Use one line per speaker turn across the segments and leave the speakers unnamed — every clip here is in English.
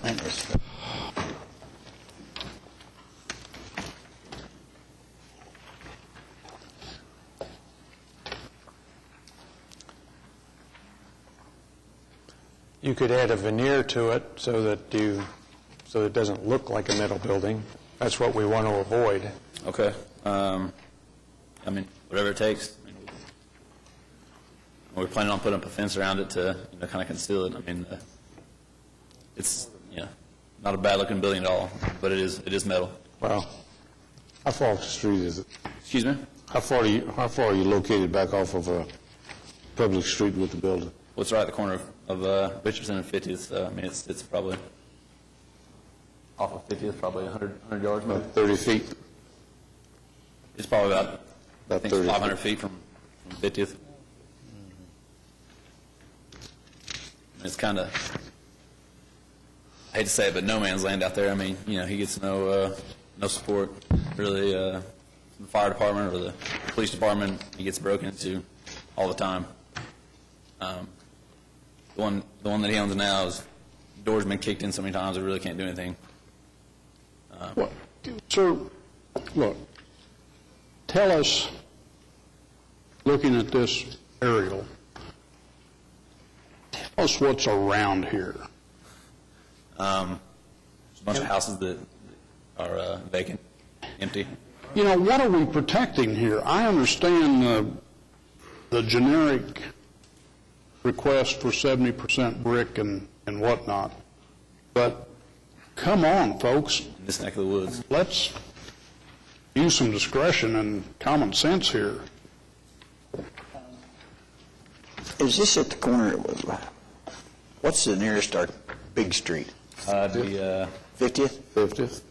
That was-
You could add a veneer to it so that you, so it doesn't look like a metal building. That's what we want to avoid.
Okay. Um, I mean, whatever it takes. I mean, We're planning on putting up a fence around it to, you know, kind of conceal it. I mean, uh, it's, you know, not a bad-looking building at all, but it is, it is metal.
Well,
How far off the street is it?
Excuse me?
How far are you, how far are you located back off of
uh,
a public street with the building?
What's right at the corner of- of uh, Richardson and 50th? So, I mean, it's, it's probably, off of 50th, probably 100, 100 yards, maybe.
About 30 feet?
It's probably about, I
About
think,
30 feet.
500 feet from from 50th. It's kind of, I hate to say it, but no man's land out there. I mean, you know, he gets no, uh, no support, really, uh, from the fire department or the police department. He gets broken into all the time. Um, The one, the one that he owns now is, door's been kicked in so many times, it really can't do anything.
What- Sir, look, tell us, looking at this aerial, tell us what's around here.
Um, There's a bunch of houses that are uh, vacant, empty.
You know, what are we protecting here? I understand the, the generic request for 70% brick and, and whatnot, but come on, folks,
in this neck of the woods.
let's use some discretion and common sense here.
Is this at the corner of, uh, what's the nearest our big street?
Uh, the, uh,
50th?
50th?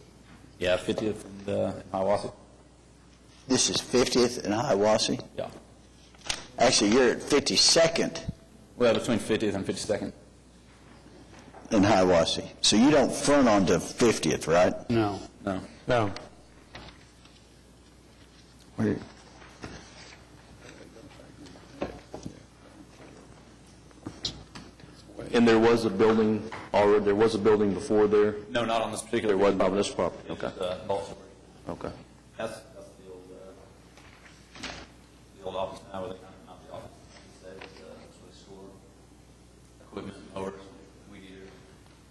yeah, 50th and uh, Hiawassee.
This is 50th and Hiawassee?
Yeah.
Actually, you're at 52nd
Well, between 50th and 52nd.
and Hiawassee. So you don't front onto 50th, right?
No.
No.
no,
And there was a building, or there was a building before there?
No, not on this particular
There was, on this property?
Okay. Uh, Baltimore.
Okay.
That's, that's the old, uh, the old office now, where they kind of, not the office, they say it's, uh, it's where they store equipment, mowers, weed eater,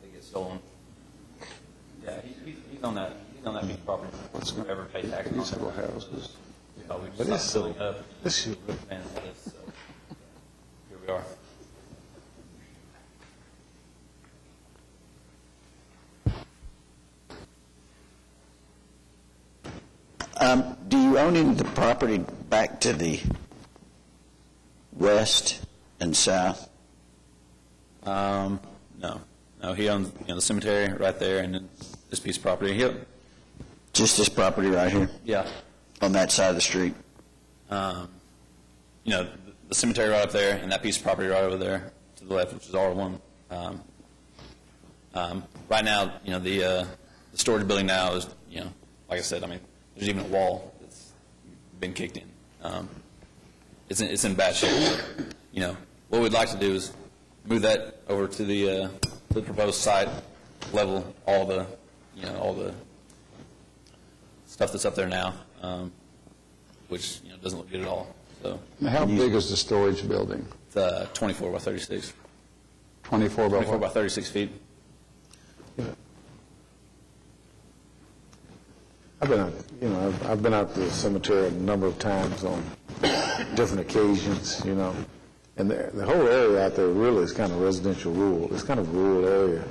they get stolen. Yeah, he's, he's- he's on that, he's on that big property. What's going? Ever pay taxes on it.
houses.
So we just
it's
stopped building up.
This is
And it's, uh, Here we are.
Um, Do you own any of the property back to the west and south?
Um, no, no, he owns, you know, the cemetery right there and then this piece of property. He,
Just this property right here,
yeah,
on that side of the street?
um, you know, the cemetery right up there and that piece of property right over there to the left, which is R1. Um, um, right now, you know, the, uh, the storage building now is, you know, like I said, I mean, there's even a wall that's been kicked in. Um, it's in, it's in bad shape. You know, what we'd like to do is move that over to the, uh, the proposed site, level all the, you know, all the stuff that's up there now, um, which, you know, doesn't look good at all. So
How big is the storage building?
it's uh, 24 by 36,
24 by
24 by
what?
36 feet.
I've been, out- you know, I've- I've been out to the cemetery a number of times on different occasions, you know, and the the whole area out there really is kind of residential rural, it's kind of rural area,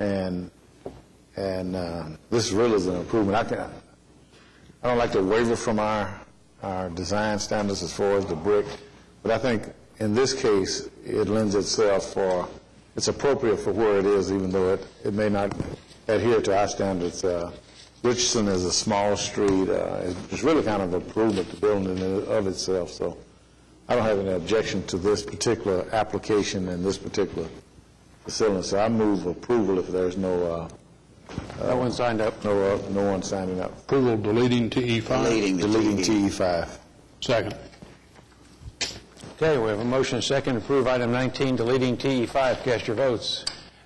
and, and uh, this really is an improvement. I can, I don't like to waver from our, our design standards as far as the brick, but I think in this case, it lends itself for, it's appropriate for where it is, even though it, it may not adhere to our standards. Uh, Richardson is a small street, uh, it's- it's really kind of an improvement to building in and of itself, so I don't have any objection to this particular application and this particular facility, so I move approval if there's no,
no one signed up.
uh, no, uh, no one signing up.
Approval deleting to E5?
Leading the
Deleting
TD.
TE5.
Second.
Okay, we have a motion and a second to approve item 19, deleting TE5. E Cast your votes.